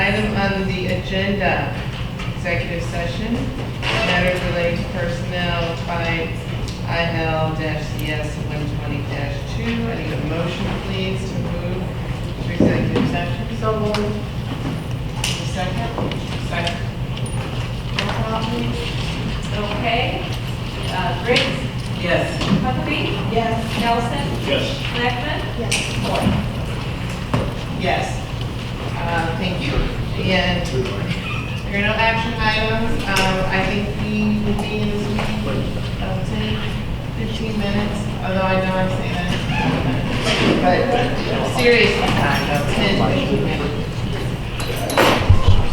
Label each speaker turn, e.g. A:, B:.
A: agenda, executive session, matters relating to personnel by IL CS one twenty two. I need a motion, please, to move to executive session. So moved. Second? Second. Roll call, please.
B: Okay. Uh, Briggs,
A: Yes.
B: Huckabee. Yes. Nelson,
C: Yes.
B: Blackman. Yes. Moore.
A: Yes. Uh, Thank you. And there are no action items. Um, I think we will be in this meeting for uh, 10, 15 minutes, although I know I'm saying that. But seriously, time, about 10, 15 minutes.